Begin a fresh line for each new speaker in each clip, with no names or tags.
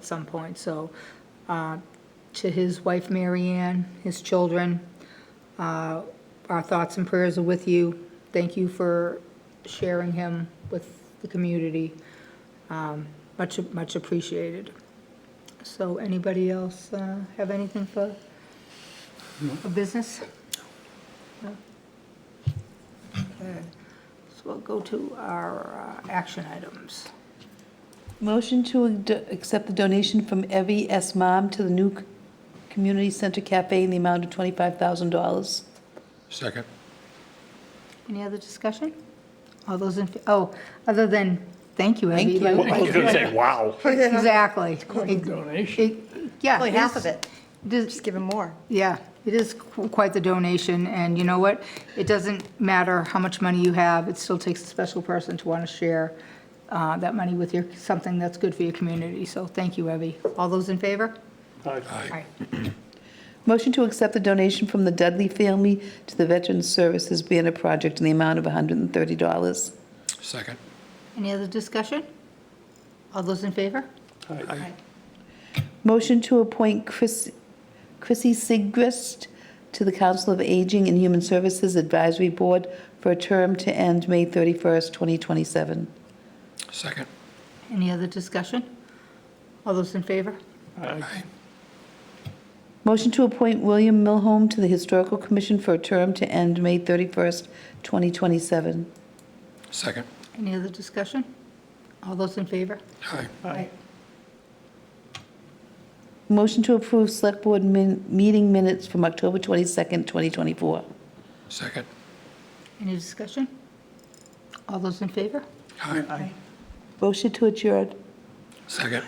at some point, so, uh, to his wife, Mary Ann, his children, uh, our thoughts and prayers are with you. Thank you for sharing him with the community. Um, Much, much appreciated. So anybody else uh, have anything for, for business? No. Okay. So we'll go to our uh, action items.
Motion to ad- accept the donation from Evie S. Mom to the new c- community center cafe in the amount of $25,000.
Second.
Any other discussion? All those in, fa- oh, other than, thank you, Abby.
Thank you.
like-
I was going to say, wow.
Exactly. donation. Yeah.
Only half of it.
Does,
Just give him more.
Yeah, it is qu- quite the donation, and you know what? It doesn't matter how much money you have, it still takes a special person to want to share uh, that money with your, something that's good for your community. So thank you, Evie. All those in favor? Aye.
Motion to accept the donation from the Dudley family to the Veterans Services Banner Project in the amount of $130.
Second.
Any other discussion? All those in favor?
Aye.
Motion to appoint Chris- Chrissy Sigrist to the Council of Aging and Human Services Advisory Board for a term to end May 31st, 2027.
Second.
Any other discussion? All those in favor?
Aye.
Motion to appoint William Milholm to the Historical Commission for a term to end May 31st, 2027.
Second.
Any other discussion? All those in favor?
Aye.
Aye.
Motion to approve Select Board min- meeting minutes from October 22nd, 2024.
Second.
Any discussion? All those in favor?
Aye.
Motion to adjourn.
Second.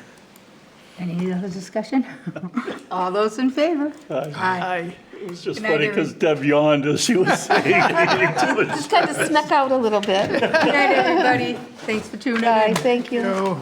Any other discussion? All those in favor? Aye.
I, it was just
Good night,
funny because Deb yawned as she was saying, it too much
Just kind of snuck out a little bit.
Good night, everybody. Thanks for tuning in.
Bye, thank you.
Oh.